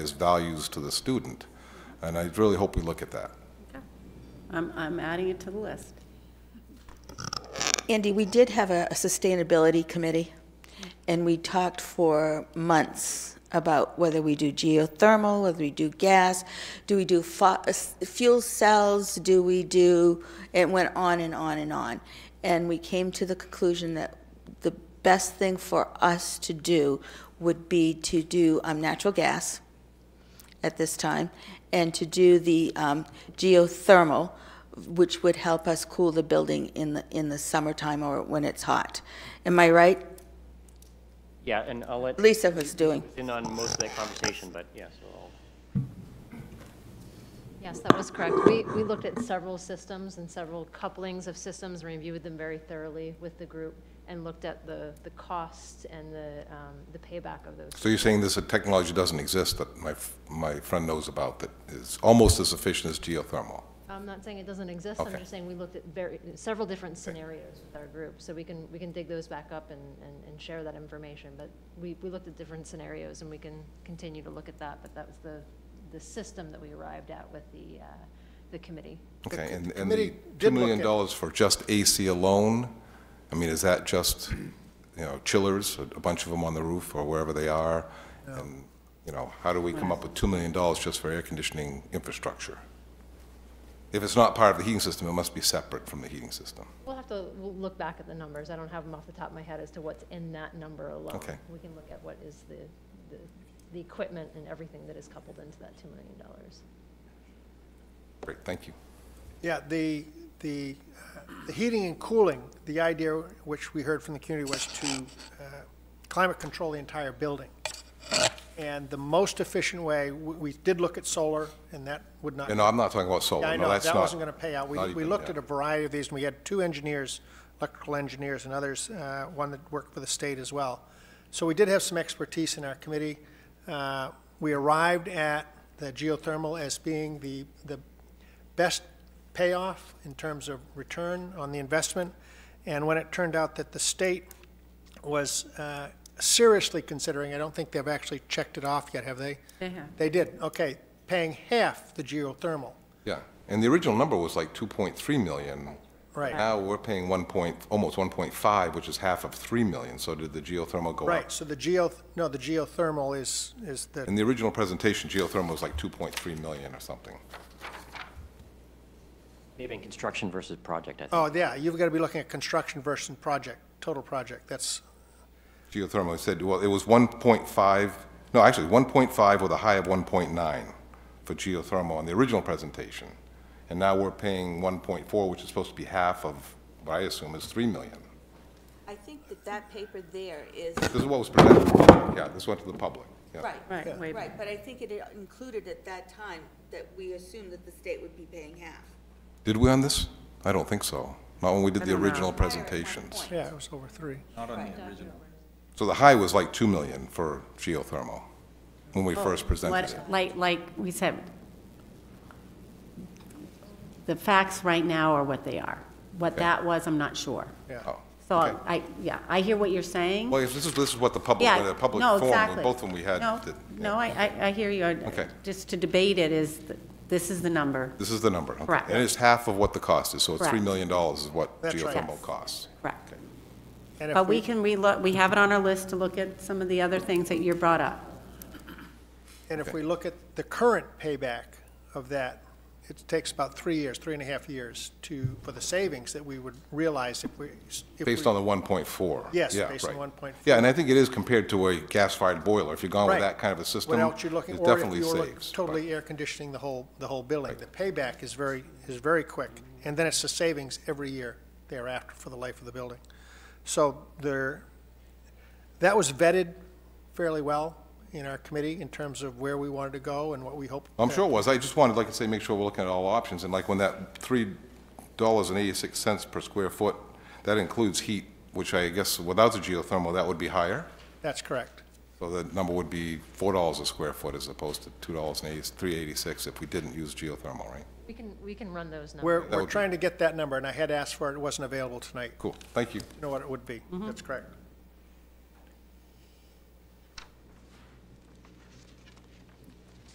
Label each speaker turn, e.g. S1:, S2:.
S1: as values to the student. And I really hope we look at that.
S2: I'm, I'm adding it to the list.
S3: Andy, we did have a a sustainability committee, and we talked for months about whether we do geothermal, whether we do gas, do we do fo- s- fuel cells, do we do, it went on and on and on. And we came to the conclusion that the best thing for us to do would be to do um, natural gas at this time, and to do the um, geothermal, which would help us cool the building in the, in the summertime or when it's hot. Am I right?
S4: Yeah, and I'll let
S3: Lisa was doing.
S4: in on most of that conversation, but yes, I'll
S5: Yes, that was correct. We, we looked at several systems and several couplings of systems, reviewed them very thoroughly with the group, and looked at the, the costs and the, um, the payback of those.
S1: So you're saying there's a technology doesn't exist that my, f- my friend knows about that is almost as efficient as geothermal?
S5: I'm not saying it doesn't exist, I'm
S1: Okay.
S5: just saying we looked at very, several different scenarios with our group, so we can, we can dig those back up and, and, and share that information, but we, we looked at different scenarios, and we can continue to look at that, but that was the, the system that we arrived at with the, uh, the committee.
S1: Okay,
S6: the
S1: and, and
S6: committee
S1: the $2
S6: did look
S1: million
S6: at-
S1: dollars for just AC alone? I mean, is that just, you know, chillers, a a bunch of them on the roof or wherever they are? And, you know, how do we come up with $2 million just for air conditioning infrastructure? If it's not part of the heating system, it must be separate from the heating system.
S5: We'll have to we'll look back at the numbers. I don't have them off the top of my head as to what's in that number alone.
S1: Okay.
S5: We can look at what is the, the, the equipment and everything that is coupled into that $2 million.
S1: Great, thank you.
S6: Yeah, the, the, uh, the heating and cooling, the idea which we heard from the community was to uh, climate control the entire building. And the most efficient way, we, we did look at solar, and that would not.
S1: And no, I'm not talking about
S6: Yeah,
S1: solar,
S6: I
S1: no,
S6: know,
S1: that's not.
S6: that wasn't going to pay out. We,
S1: not
S6: we
S1: even-
S6: looked
S1: yeah.
S6: at a variety of these, and we had two engineers, electrical engineers and others, uh, one that worked for the state as well. So we did have some expertise in our committee. Uh, We arrived at the geothermal as being the, the best payoff in terms of return on the investment. And when it turned out that the state was uh, seriously considering, I don't think they've actually checked it off yet, have they?
S2: They have.
S6: They did, okay, paying half the geothermal.
S1: Yeah, and the original number was like 2.3 million.
S6: Right.
S1: Now we're paying 1 point, almost 1.5, which is half of 3 million, so did the geothermal go up?
S6: Right, so the geo, no, the geothermal is, is
S1: In
S6: the,
S1: the original presentation, geothermal was like 2.3 million or something.
S4: maybe in construction versus project, I think.
S6: oh, yeah, you've got to be looking at construction versus project, total project, that's,
S1: Geothermal, it said, well, it was 1.5, no, actually, 1.5 with a high of 1.9 for geothermal in the original presentation. And now we're paying 1.4, which is supposed to be half of, what I assume is 3 million.
S7: I think that that paper there is,
S1: This is what was presented, yeah, this went to the public, yeah.
S7: right,
S2: Right, wait,
S7: right, but I think it included at that time that we assumed that the state would be paying half.
S1: Did we on this? I don't think so. Not when we did
S2: I
S1: the
S2: don't know.
S1: original
S7: Prior at one
S1: presentations.
S7: point.
S6: yeah, it was over three.
S1: So the high was like 2 million for geothermal, when we first presented it.
S2: Oh, What- Like, like we said, the facts right now are what they are. What that was, I'm not sure.
S1: Oh,
S2: So
S1: okay.
S2: I, yeah, I hear what you're saying.
S1: Well, if this is, this is what the public,
S2: Yeah,
S1: the public
S2: no,
S1: forum,
S2: exactly.
S1: both of them we had.
S2: No,
S1: did-
S2: no, I, I, I hear you. I-
S1: Okay.
S2: Just to debate it is, th- this is the number,
S1: This is the number. okay.
S2: Correct.
S1: And it's half of what the cost is, so it's $3
S2: Correct.
S1: million is what
S6: That's right.
S1: geothermal
S2: Yes.
S1: costs.
S2: correct.
S6: And if
S2: But we can relook, we have it on our list to look at some of the other things that you brought up.
S6: And if we look at the current payback of that, it takes about three years, three and a half years to, for the savings that we would realize if we. if
S1: Based
S6: we-
S1: on the 1.4.
S6: Yes,
S1: Yeah,
S6: based on
S1: right.
S6: 1.4.
S1: Yeah, and I think it is compared to a gas-fired boiler. If you're gone with
S6: Right.
S1: that kind of a system,
S6: What
S1: it
S6: else you're
S1: definitely
S6: looking,
S1: saves.
S6: or if you were look-
S1: but-
S6: totally air conditioning the whole, the whole building. The payback is very, is very quick, and then it's the savings every year thereafter for the life of the building. So there, that was vetted fairly well in our committee in terms of where we wanted to go and what we hoped.
S1: I'm sure it was. I just wanted, like I say, make sure we're looking at all options, and like when that three dollars and eighty-six cents per square foot, that includes heat, which I guess without the geothermal, that would be higher.
S6: That's correct.
S1: So the number would be four dollars a square foot as opposed to two dollars and eighty, three eighty-six if we didn't use geothermal, right?
S5: We can, we can run those numbers.
S6: We're,
S1: would
S6: we're
S1: be-
S6: trying to get that number, and I had asked for it, it wasn't available tonight.
S1: Cool, thank you.
S6: You know what it would be. That's correct.